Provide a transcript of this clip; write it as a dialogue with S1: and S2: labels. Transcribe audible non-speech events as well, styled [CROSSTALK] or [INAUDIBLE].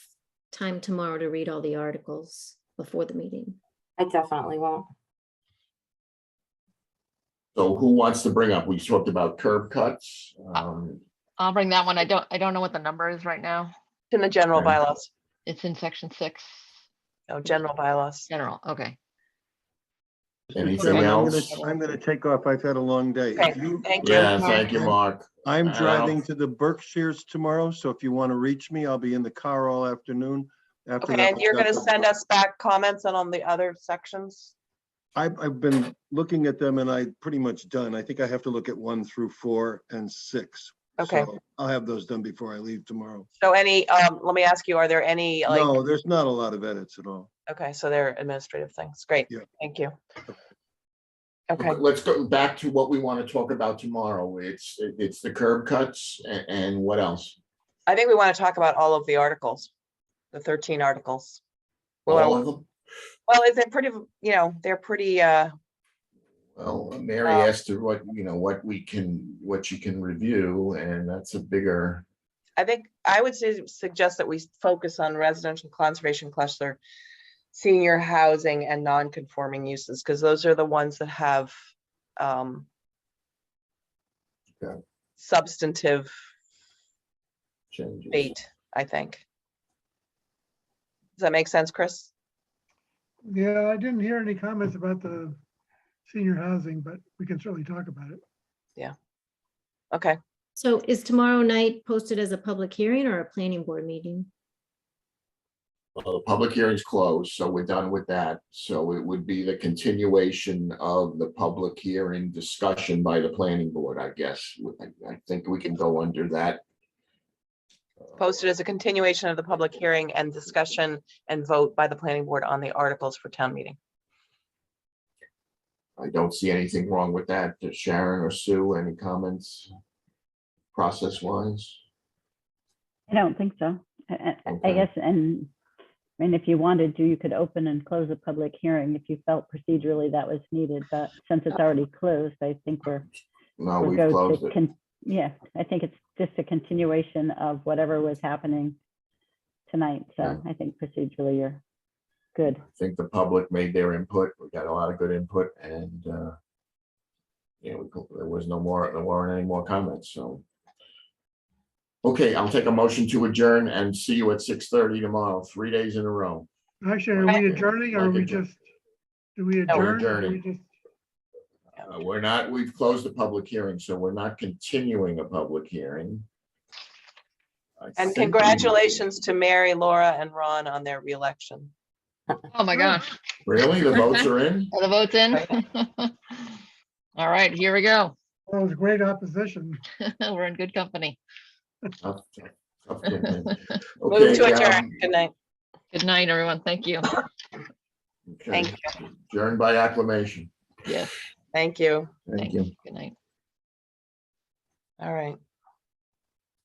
S1: time tomorrow to read all the articles before the meeting.
S2: I definitely won't.
S3: So who wants to bring up? We talked about curb cuts. um,
S4: I'll bring that one. I don't, I don't know what the number is right now.
S5: It's in the general
S3: Okay.
S5: bylaws,
S4: It's in section six,
S5: no, general bylaws.
S4: general, okay.
S3: Anything
S4: Okay.
S6: I'm
S3: else?
S6: gonna- I'm gonna take off. I've had a long day.
S5: Okay,
S6: If you-
S5: thank you.
S3: Yeah, thank you, Mark.
S6: I'm
S3: Al.
S6: driving to the Berkshires tomorrow, so if you want to reach me, I'll be in the car all afternoon. After
S5: Okay,
S6: that,
S5: and you're
S6: we've got
S5: gonna
S6: the-
S5: send us back comments on, on the other sections?
S6: I've, I've been looking at them and I pretty much done. I think I have to look at one through four and six.
S5: Okay,
S6: So I'll have those done before I leave tomorrow.
S5: so any, um, let me ask you, are there any, like,
S6: No, there's not a lot of edits at all.
S5: okay, so they're administrative things, great,
S6: Yeah.
S5: thank you. Okay,
S3: Okay, Let's go back to what we want to talk about tomorrow. It's, it's the curb cuts a- and what else?
S5: I think we want to talk about all of the articles, the thirteen articles. Well,
S3: All
S5: I-
S3: of them?
S5: well, is it pretty, you know, they're pretty, uh,
S3: Well, Mary
S5: Uh,
S3: asked her what, you know, what we can, what you can review, and that's a bigger,
S5: I think I would su- suggest that we s- focus on residential conservation cluster, senior housing and non-conforming uses, because those are the ones that have um,
S3: Okay.
S5: substantive
S3: change.
S5: bait, I think. Does that make sense, Chris?
S7: Yeah, I didn't hear any comments about the senior housing, but we can certainly talk about it.
S5: Okay,
S1: So is tomorrow night posted as a public hearing or a planning board meeting?
S3: Well, the Uh, public hearing's closed, so we're done with that. So it would be the continuation of the public hearing discussion by the planning board, I guess. I, I think we can go under that.
S5: posted as a continuation of the public hearing and discussion and vote by the planning board on the articles for town meeting.
S3: I don't see anything wrong with that. Does Sharon or Sue, any comments? Process wise?
S8: I don't think so. I- I- I
S3: Okay.
S8: guess, and, I mean, if you wanted to, you could open and close a public hearing if you felt procedurally that was needed, but since it's already closed, I think we're.
S3: No,
S8: we're
S3: we've
S8: good to
S3: Oh, closed it.
S8: con- Yeah, I think it's just a continuation of whatever was happening tonight, so
S3: Yeah.
S8: I think procedurally you're good.
S3: I think the public made their input. We got a lot of good input and, uh, yeah, we co- there was no more, there weren't any more comments, so. Okay, I'll take a motion to adjourn and see you at six thirty tomorrow, three days in a row.
S7: Actually, are
S5: Right.
S7: we adjourning or are
S3: Like
S7: we
S3: adjourn-
S7: just, do we
S5: No,
S3: we're
S7: adjourn? or we
S3: adjourning.
S7: just-
S3: Uh, We're not, we've closed the public hearing, so we're not continuing a public hearing. I think
S5: And
S3: we-
S5: congratulations to Mary, Laura and Ron on their reelection.
S4: Oh my gosh,
S3: Really? The votes are in?
S5: [LAUGHS]
S4: are the votes in? [LAUGHS] All right, here we go. [LAUGHS]
S7: Well, it was great opposition.
S4: We're in good company.
S3: Tough- tough commitment.
S5: Move to
S3: Okay,
S5: adjourn.
S3: um,
S5: Good night.
S4: Good night, everyone. Thank you.
S3: okay.
S5: Thank
S3: Adjourned by acclamation.
S4: Yes,
S5: Thank you.
S3: Thank
S4: thank
S3: you.
S4: you. Good night.
S5: All right.